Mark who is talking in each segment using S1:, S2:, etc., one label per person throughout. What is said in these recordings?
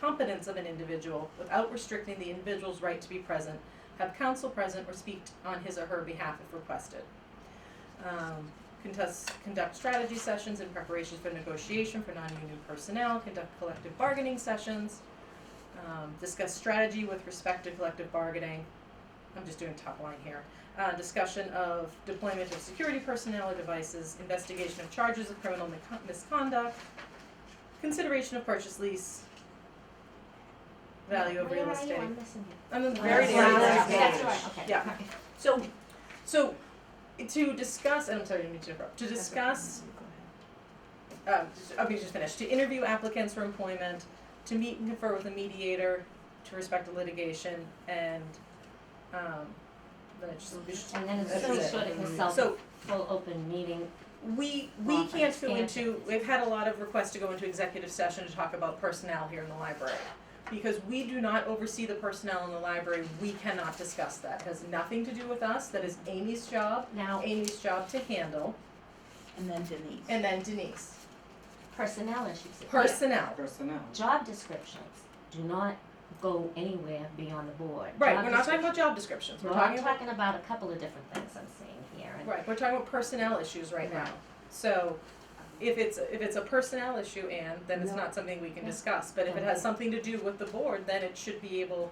S1: competence of an individual without restricting the individual's right to be present, have counsel present or speak on his or her behalf if requested. Um, contest, conduct strategy sessions in preparation for negotiation for non-union personnel, conduct collective bargaining sessions, um, discuss strategy with respect to collective bargaining. I'm just doing top line here. Uh, discussion of deployment of security personnel or devices, investigation of charges of criminal mi- misconduct, consideration of purchase lease, value of real estate.
S2: Where are you? I'm missing you.
S1: I'm in the
S3: Very
S1: very
S3: near
S1: near
S3: the
S1: last
S3: last
S1: page.
S2: That's right, okay.
S1: Yeah. So, so to discuss, and I'm sorry, I didn't mean to interrupt. To discuss, um, just- I'll be just finished. To interview applicants for employment, to meet and confer with a mediator, to respect the litigation, and um, then I just, we should-
S2: And then it's
S1: That's
S2: really
S1: it.
S2: sort of a self,
S1: so
S2: full open meeting.
S1: we we
S2: Well,
S1: can't go
S2: understand.
S1: into. We've had a lot of requests to go into executive session to talk about personnel here in the library. Because we do not oversee the personnel in the library, we cannot discuss that. It has nothing to do with us. That is Amy's job.
S2: Now,
S1: Amy's job to handle,
S3: And then Denise.
S1: and then Denise.
S2: personnel issues.
S1: Personnel.
S4: personnel.
S2: Job descriptions do not go anywhere beyond the board.
S1: Right,
S2: Job
S1: we're not talking
S2: description-
S1: about job descriptions, we're
S2: Well, I'm
S1: talking about,
S2: talking about a couple of different things I'm seeing here. and-
S1: right, we're talking about personnel issues right now. So if it's, if it's a personnel issue, Anne, then it's
S3: No.
S1: not something we can
S2: No.
S1: discuss, but if it has something to do with the board, then it should be able,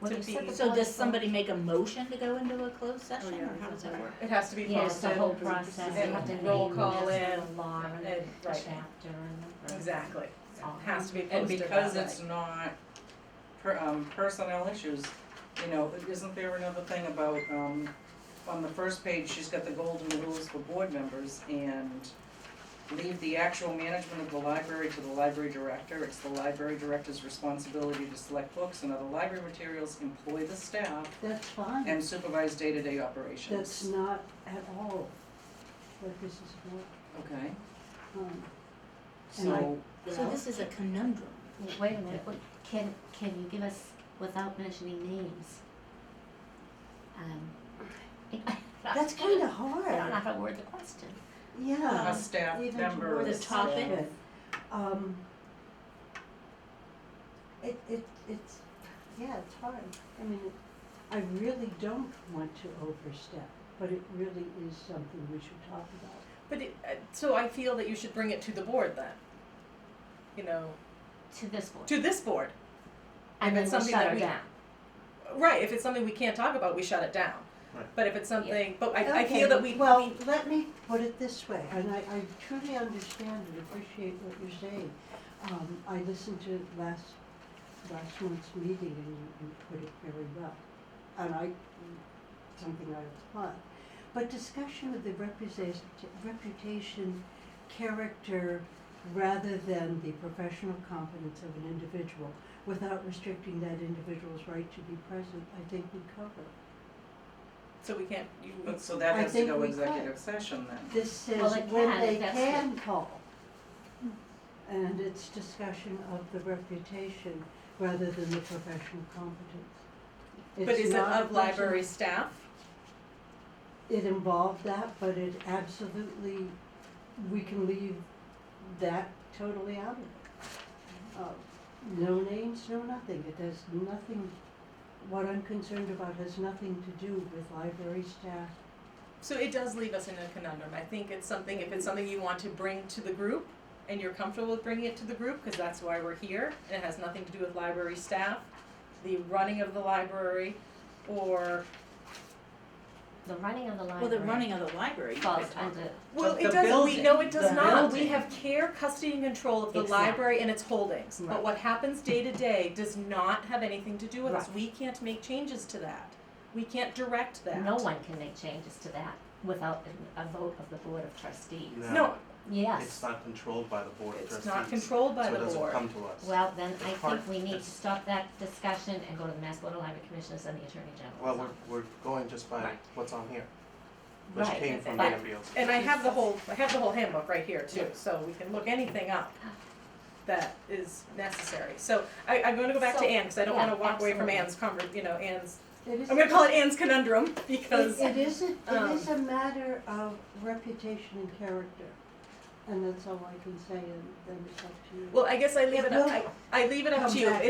S2: Well,
S1: To
S2: you said
S1: be-
S2: the
S3: So
S2: board
S3: does
S2: is-
S3: somebody make a motion to go into a closed session,
S4: yeah,
S3: or Oh, how does that work?
S1: it has to be
S2: Yeah, it's the
S1: posted.
S2: whole process, you
S1: and
S2: have to name
S1: roll
S2: this,
S1: call
S2: the
S1: in,
S2: law, and the
S1: and- right.
S2: chapter, and the verse.
S1: Exactly,
S2: It's all-
S1: It has to be
S4: And
S1: posted that
S4: because
S1: way.
S4: it's not per, um, personnel issues, you know, isn't there another thing about, um, on the first page, she's got the golden rules for board members and leave the actual management of the library to the library director. It's the library director's responsibility to select books and other library materials, employ the staff,
S5: That's fine,
S4: and supervise day-to-day operations.
S5: that's not at all what this is
S4: Okay,
S5: for. Um, And I-
S4: so,
S3: So this is a conundrum.
S2: Well, Wait a minute, what, can, can you give us, without mentioning names? Um,
S5: That's kind of
S2: I don't know
S5: hard,
S2: how to word the question.
S4: a
S5: yeah.
S4: staff
S5: um, even
S4: member,
S5: toward
S3: The
S4: is staff.
S3: topic,
S5: Um, It, it, it's, yeah, it's hard. I mean, it- I really don't want to overstep, but it really is something we should talk about.
S1: But it, uh, so I feel that you should bring it to the board then. You know,
S2: To this board,
S1: to this board.
S2: and then
S1: it's
S2: we'll
S1: something
S2: shut
S1: that
S2: her
S1: we-
S2: down.
S1: Right, if it's something we can't talk about, we shut it down.
S6: Right.
S1: But if it's something, but I, I
S5: Okay,
S1: feel that we,
S5: Well, let me put it this way, and I, I truly understand and appreciate what you're saying. Um, I listened to last, last month's meeting and you, you put it very well. And I, something I applaud. But discussion of the represent, reputation, character, rather than the professional competence of an individual, without restricting that individual's right to be present, I think we cover.
S1: so we can't, you,
S4: But so that
S5: I
S4: has to
S5: think
S4: go
S5: we could.
S4: executive session then.
S5: This says
S2: Well, they
S5: when
S2: can,
S5: they
S2: that's Hmm.
S5: can call. And it's discussion of the reputation rather than the professional competence.
S1: but
S5: It's
S1: is it
S5: not a
S1: of library staff?
S5: person- It involved that, but it absolutely, we can leave that totally out of it. Uh, No names, no nothing, it has nothing, what I'm concerned about has nothing to do with library staff.
S1: So it does leave us in a conundrum. I think it's something, if it's something you want to bring to the group and you're comfortable with bringing it to the group, because that's why we're here, and it has nothing to do with library staff, the running of the library, or,
S2: The running of the library.
S3: well, the running of the library.
S2: Falls under,
S1: well,
S4: But
S1: it
S4: the
S1: doesn't, we,
S4: building-
S1: no, it does
S4: the
S1: not. We
S4: building.
S1: have care, custody, and control of the
S2: Exactly.
S1: library and its holdings. But
S2: Right.
S1: what happens day to day does not have anything to do with us.
S2: Right.
S1: We can't make changes to that. We can't direct that.
S2: no one can make changes to that without a a vote of the board of trustees.
S1: No,
S2: Yes,
S6: It's not controlled by the board of trustees.
S1: It's not controlled by the
S6: So it doesn't
S1: board.
S6: come to us.
S2: well, then I
S6: Part-
S2: think we need to
S6: it's-
S2: stop that discussion and go to the Mass Water Library Commissioners and the Attorney General's
S6: Well,
S2: office.
S6: we're, we're going just by
S2: Right.
S6: what's on here, which
S2: Right,
S6: came from
S2: but-
S6: Danville.
S1: And I have the whole, I have the whole handbook right here too, so we can look anything up that is necessary. So I, I'm gonna go back to
S2: So,
S1: Anne, because I don't
S2: yeah,
S1: wanna walk away from
S2: absolutely.
S1: Anne's conver, you know, Anne's,
S5: It is
S1: I'm gonna call it Anne's conundrum, because
S5: It it is a,
S1: um,
S5: it is a matter of reputation and character. and that's all I can say, and then it's up to you.
S1: Well, I guess I leave it,
S5: It will
S1: I, I leave it up
S5: come
S1: to you.
S5: back.